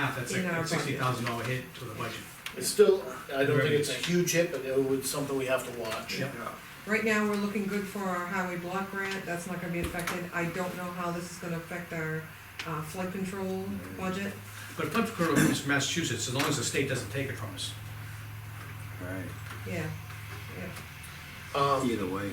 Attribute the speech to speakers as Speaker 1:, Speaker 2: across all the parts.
Speaker 1: math, that's
Speaker 2: In
Speaker 1: a
Speaker 2: our
Speaker 1: sixty
Speaker 2: budget.
Speaker 1: thousand dollar hit to the budget.
Speaker 3: It's still, I don't think it's a
Speaker 1: Right.
Speaker 3: huge hit, but it would, something we have to watch.
Speaker 1: Yep.
Speaker 2: Right now, we're looking good for our highway block grant, that's not gonna be affected, I don't know how this is gonna affect our, uh, flood control budget.
Speaker 1: But flood control is Massachusetts, as long as the state doesn't take it from us.
Speaker 4: Right,
Speaker 2: Yeah,
Speaker 3: Um,
Speaker 4: either way,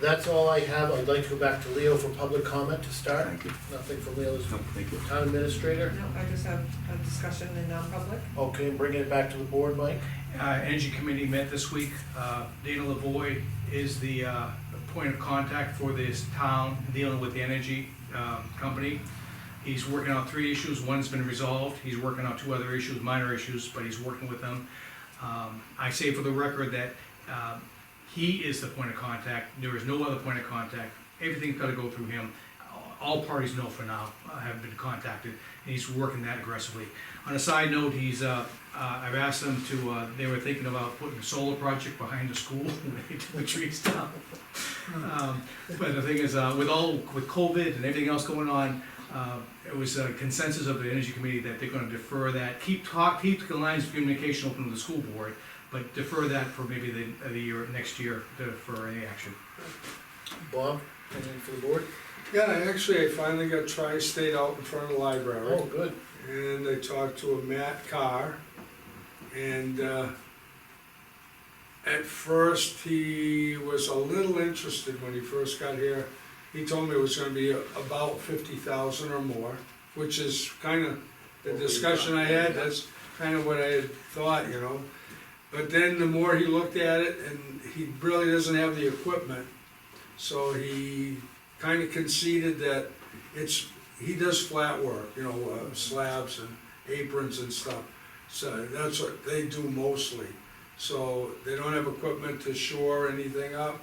Speaker 3: that's all I have, I'd like to go back to Leo for public comment to start.
Speaker 4: thank you,
Speaker 3: Nothing from Leo,
Speaker 4: No, thank you.
Speaker 3: town administrator?
Speaker 2: no, I just have a discussion in non-public.
Speaker 3: Okay, bringing it back to the board, Mike?
Speaker 1: Uh, Energy Committee met this week. Uh, Dana Lavoy is the uh, point of contact for this town dealing with the energy um, company. He's working on three issues. One's been resolved. He's working on two other issues, minor issues, but he's working with them. Um, I say for the record that um, he is the point of contact. There is no other point of contact. Everything's got to go through him. All parties know for now, uh, have been contacted, and he's working that aggressively. On a side note, he's, uh, uh, I've asked them to, uh, they were thinking about putting a solar project behind the school when they took the trees down. Um, But the thing is, uh, with all, with COVID and everything else going on, uh, it was a consensus of the energy committee that they're gonna defer that, keep talk, keep the lines of communication open with the school board, but defer that for maybe the, the year, next year, to- for any action.
Speaker 3: Bob, anything for the board?
Speaker 5: Yeah, I actually, I finally got Tri-State out in front of the library,
Speaker 3: Oh, good.
Speaker 5: and I talked to a Matt Carr, and, uh, at first, he was a little interested when he first got here. He told me it was gonna be about fifty thousand or more, which is kinda the discussion I had, that's kinda what I had thought, you know? But then the more he looked at it, and he really doesn't have the equipment, so he kind of conceded that it's, he does flat work, you know, uh, slabs and aprons and stuff. So that's what they do mostly. So they don't have equipment to shore anything up.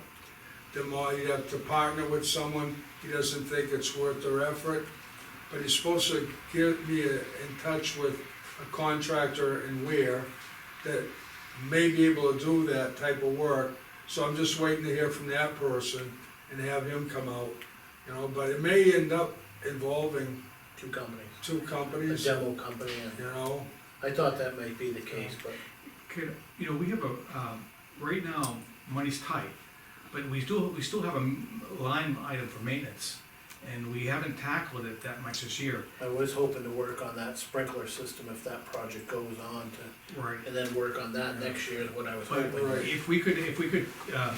Speaker 5: The more you have to partner with someone, he doesn't think it's worth their effort. But he's supposed to get me a- in touch with a contractor in Ware that may be able to do that type of work. So I'm just waiting to hear from that person and have him come out, you know, but it may end up involving
Speaker 3: Two companies,
Speaker 5: two
Speaker 3: a
Speaker 5: companies, you
Speaker 3: demo company, and
Speaker 5: know?
Speaker 3: I thought that might be the case, but
Speaker 1: Could, you know, we have a, um, right now, money's tight, but we still, we still have a m- line item for maintenance, and we haven't tackled it that much this year.
Speaker 3: I was hoping to work on that sprinkler system if that project goes on to,
Speaker 1: Right.
Speaker 3: and then work on that next year is what I was
Speaker 1: But
Speaker 3: hoping.
Speaker 5: Right.
Speaker 1: if we could, if we could, uh,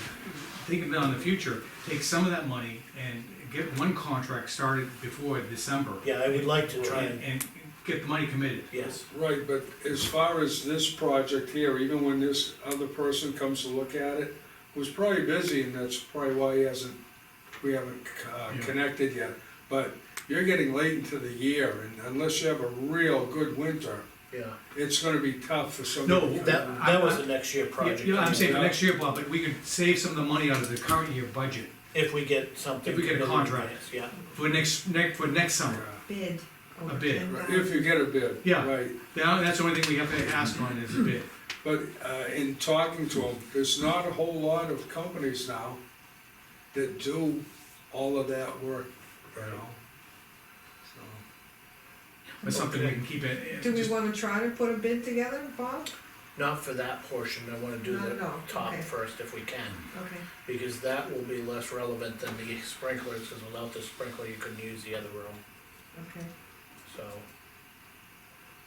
Speaker 1: think of it in the future, take some of that money and get one contract started before December.
Speaker 3: Yeah, I would like to try
Speaker 1: And,
Speaker 3: and,
Speaker 1: and get the money committed.
Speaker 3: yes,
Speaker 5: Right, but as far as this project here, even when this other person comes to look at it, who's probably busy and that's probably why he hasn't, we haven't, uh,
Speaker 1: Yeah.
Speaker 5: connected yet. But you're getting late into the year and unless you have a real good winter,
Speaker 3: yeah.
Speaker 5: it's gonna be tough for
Speaker 1: No,
Speaker 5: somebody. to come
Speaker 3: That,
Speaker 5: in.
Speaker 3: that was the next year project.
Speaker 1: You know, I'm saying for
Speaker 5: Yeah.
Speaker 1: next year, Bob, but we could save some of the money out of the current year budget
Speaker 3: If we get something.
Speaker 1: If we get a
Speaker 3: committed,
Speaker 1: contract.
Speaker 3: yes, Yeah.
Speaker 1: for next, next, for next summer.
Speaker 2: Bid.
Speaker 1: A bid,
Speaker 2: uh,
Speaker 5: Right, If you get a bid.
Speaker 1: Yeah.
Speaker 5: Right,
Speaker 1: That- That's the only thing we have to ask on is a bid.
Speaker 5: But uh, in talking to them, there's not a whole lot of companies now that do all of that work, you know? So,
Speaker 1: But something we can keep it. it
Speaker 2: Do we
Speaker 1: just-
Speaker 2: wanna try to put a bid together, Bob?
Speaker 3: Not for that portion, I wanna do
Speaker 2: Not
Speaker 3: the
Speaker 2: at all,
Speaker 3: top
Speaker 2: okay.
Speaker 3: first if we can,
Speaker 2: Okay,
Speaker 3: because that will be less relevant than the sprinklers, cause without the sprinkler, you couldn't use the other room,
Speaker 2: okay.
Speaker 3: so.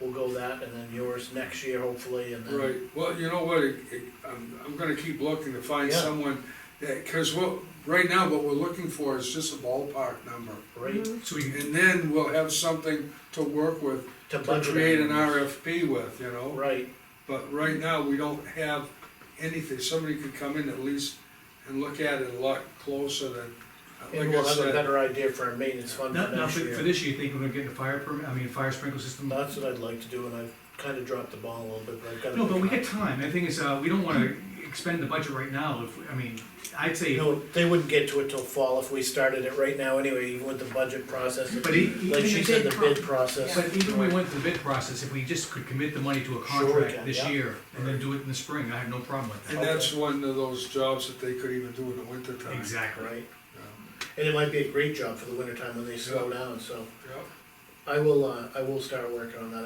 Speaker 3: We'll go that, and then yours next year hopefully, and
Speaker 5: Right,
Speaker 3: then,
Speaker 5: well, you know what, it- it- I'm, I'm gonna keep looking to find
Speaker 3: Yeah.
Speaker 5: someone that, cause what, right now, what we're looking for is just a ballpark number.
Speaker 3: right,
Speaker 2: Mhm.
Speaker 1: So we can,
Speaker 5: And then we'll have something to work with,
Speaker 3: to
Speaker 5: to
Speaker 3: budget.
Speaker 5: create an
Speaker 3: items.
Speaker 5: RFP with, you know?
Speaker 3: Right,
Speaker 5: But right now, we don't have anything, somebody could come in at least and look at it a lot closer than,
Speaker 3: and
Speaker 5: like I
Speaker 3: we'll have a
Speaker 5: said.
Speaker 3: better idea for our maintenance fund
Speaker 1: now,
Speaker 3: for
Speaker 1: now
Speaker 3: next
Speaker 1: for for
Speaker 3: year.
Speaker 1: this year, you think we're gonna get the fire permit, I mean, fire sprinkler system?
Speaker 3: That's what I'd like to do, and I've kinda dropped the ball a little bit, but I've gotta.
Speaker 1: No, but we
Speaker 3: pick
Speaker 1: got time. The thing is, uh, we don't wanna expend the budget right now. If, we- I mean, I'd say,
Speaker 3: You know, they wouldn't get to it till fall if we started it right now anyway, even with the budget process.
Speaker 1: but e- even
Speaker 3: Like she
Speaker 1: if-
Speaker 3: said, the bid
Speaker 1: But
Speaker 3: process,
Speaker 1: even we went through the bid process, if we just could commit the money to a
Speaker 3: Sure we
Speaker 1: contract
Speaker 3: can,
Speaker 1: this
Speaker 3: yeah.
Speaker 1: year and then do it in the spring, I have no problem with
Speaker 5: And that's one of those jobs that they could even do in the winter
Speaker 1: that.
Speaker 5: time.
Speaker 1: Exactly.
Speaker 3: right? And it might be a great job for the winter time when they slow
Speaker 5: Yeah.
Speaker 3: down, so
Speaker 5: Yep.
Speaker 3: I will, uh, I will start working on that.